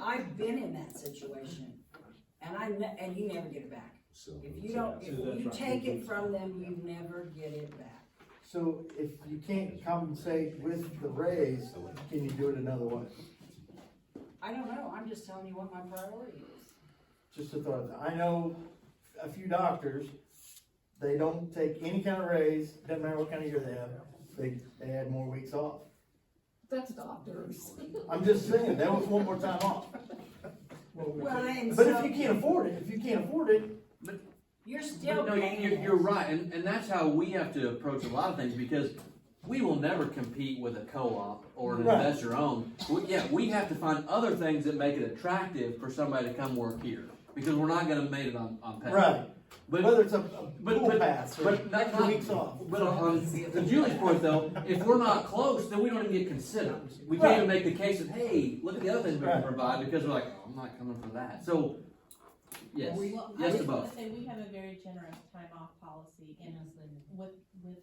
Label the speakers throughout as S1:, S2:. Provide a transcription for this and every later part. S1: I've been in that situation, and I, ne- and you never get it back.
S2: So.
S1: If you don't, if you take it from them, you never get it back.
S3: So if you can't compensate with the raise, can you do it another way?
S1: I don't know, I'm just telling you what my priority is.
S3: Just a thought, I know a few doctors, they don't take any kind of raise, doesn't matter what kind of year they have, they, they add more weeks off.
S4: That's doctors.
S3: I'm just saying, that was one more time off.
S1: Well, and
S3: But if you
S1: so,
S3: can't afford it, if you can't afford it,
S1: you're still
S5: But No,
S1: paying
S5: you-
S1: it.
S5: you're, you're right, and, and that's how we have to approach a lot of things, because we will never compete with a co-op or an
S3: Right.
S5: investor owned. We- Yeah, we have to find other things that make it attractive for somebody to come work here, because we're not gonna make it on, on pay.
S3: right,
S5: But,
S3: whether it's a a
S5: but,
S3: pool
S5: but,
S3: pass or
S5: but not,
S3: extra
S5: not,
S3: weeks off.
S5: but on to Julie's point though, if we're not close, then we don't even get considered. We can't even make the case of, hey, look at the other things we can
S3: Right.
S5: provide, because we're like, oh, I'm not coming for that, so, yes,
S6: Well, I
S5: yes
S6: was
S5: to
S6: gonna
S5: both.
S6: say, we have a very generous time off policy and
S1: Mm-hmm.
S6: with, with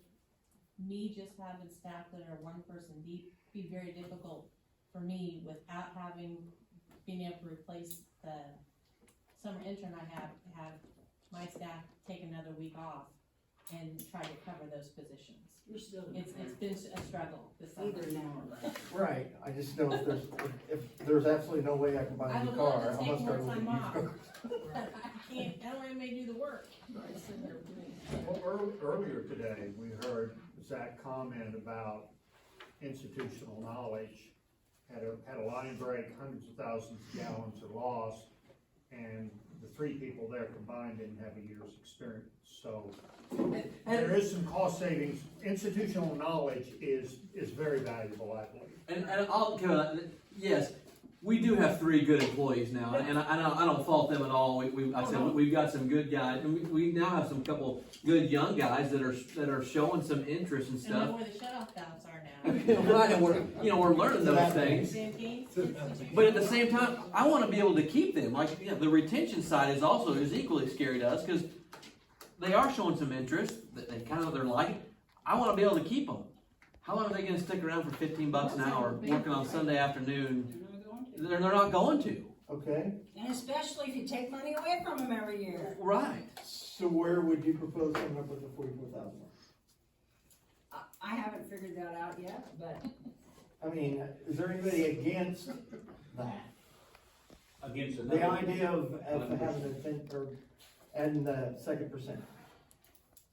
S6: me just having staff that are one person deep, be very difficult for me without having, being able to replace the summer intern I have, have my staff take another week off and try to cover those positions.
S1: You're still.
S6: It's, it's been a struggle this summer.
S1: Mm-hmm. Either now or later.
S3: Right, I just know if there's, if there's absolutely no way I can buy
S6: I
S3: a new
S6: would love
S3: car,
S6: to
S3: I
S6: take
S3: must
S6: more
S3: start with a
S6: time
S3: used
S6: off,
S3: car.
S6: but I can't, I don't have anybody to do the work.
S7: Well, ear- earlier today, we heard Zach comment about institutional knowledge. Had a, had a line break, hundreds of thousands of gallons are lost, and the three people there combined didn't have a year's experience, so. There is some cost savings, institutional knowledge is, is very valuable, I believe.
S5: And, and I'll give it, yes, we do have three good employees now, and I, I don't, I don't fault them at all. We, we, I said, we've got some good guys, and we, we now have some couple good young guys that are, that are showing some interest and
S6: And know
S5: stuff.
S6: where the shut-off valves are now.
S5: Right, and we're, you know, we're learning those things,
S6: Same thing, kids would
S5: but at
S6: do.
S5: the same time, I wanna be able to keep them, like, you know, the retention side is also, is equally scary to us, cause they are showing some interest, that they kind of, they're liking, I wanna be able to keep them. How long are they gonna stick around for fifteen bucks an hour, working on Sunday afternoon,
S1: You're never going to.
S5: they're, they're not going to.
S3: Okay,
S1: And especially if you take money away from them every year.
S5: Right.
S3: so where would you propose coming up with the forty-four thousand?
S1: I, I haven't figured that out yet, but
S3: I mean, is there anybody against that?
S8: Against
S3: The
S8: another,
S3: idea of, of having a ten, or adding the second percent?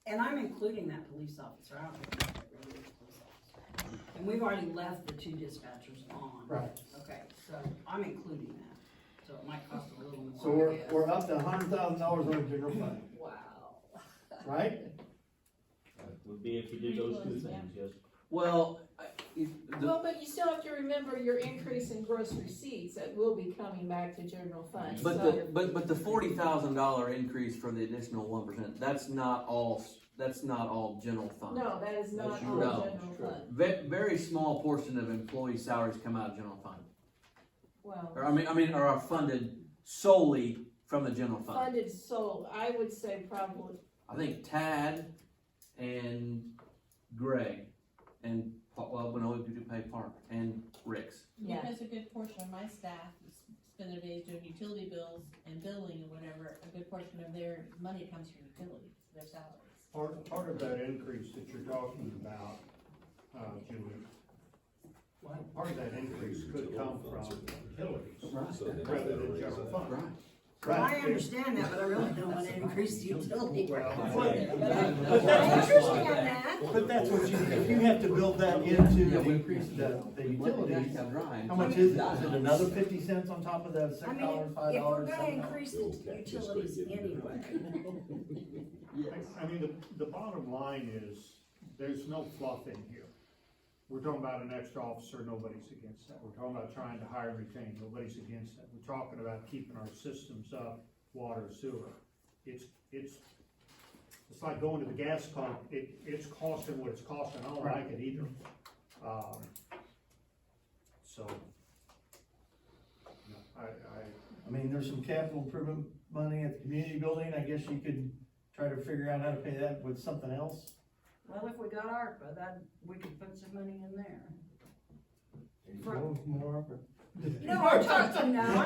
S1: And I'm including that police officer, I don't think that really is a police officer. And we've already left the two dispatchers on.
S3: Right.
S1: Okay, so I'm including that, so it might cost a little more.
S3: So
S1: I
S3: we're,
S1: guess.
S3: we're up to a hundred thousand dollars on the general fund,
S1: Wow.
S3: right?
S8: would be if you did those two things, yes.
S5: Well, I- if the,
S4: Well, but you still have to remember your increase in gross receipts that will be coming back to general fund,
S5: but
S4: so.
S5: the but but the forty thousand dollar increase for the additional one percent. That's not all. s- That's not all general fund.
S4: No, that is not all
S5: That's true.
S4: general fund,
S5: Ve- very small portion of employee salaries come out of general fund,
S4: well,
S5: or I mean, I mean, or are funded solely from the general fund.
S4: funded so, I would say probably,
S5: I think Tad and Greg and Pa- well, no, we do pay Park and Rick's.
S4: yeah.
S6: Because a good portion of my staff spend their days doing utility bills and billing and whatever, a good portion of their money comes from utilities, their salaries.
S7: Part, part of that increase that you're talking about, uh, Julie, part of that increase could come from utilities. rather than general fund.
S5: Right.
S1: I
S3: Right.
S1: understand that, but I really don't want to increase the utility.
S7: Well,
S1: But I'm interested in that.
S3: But that's what you, if you have to build that into
S5: Yeah,
S3: the
S5: we-
S3: increase, the, the utilities,
S5: Right.
S3: how much is it? Is it another fifty cents on top of the
S1: I
S3: six
S1: mean,
S3: dollars,
S1: if
S3: five
S1: if we're
S3: dollars,
S1: gonna
S3: seven dollars?
S1: increase the utilities anyway,
S5: Yes.
S7: I mean, the, the bottom line is, there's no fluff in here. We're talking about an extra officer, nobody's against that. We're talking about trying to hire and retain, nobody's against that. We're talking about keeping our systems up, water, sewer. It's, it's, it's like going to the gas pump, it, it's costing what it's costing, I don't like it either. Um, So. no, I, I,
S3: I mean, there's some capital improvement money at the community building, I guess you could try to figure out how to pay that with something else.
S1: well, if we got ARPA, that, we could put some money in there.
S3: More- more-
S1: No, I'm talking, no,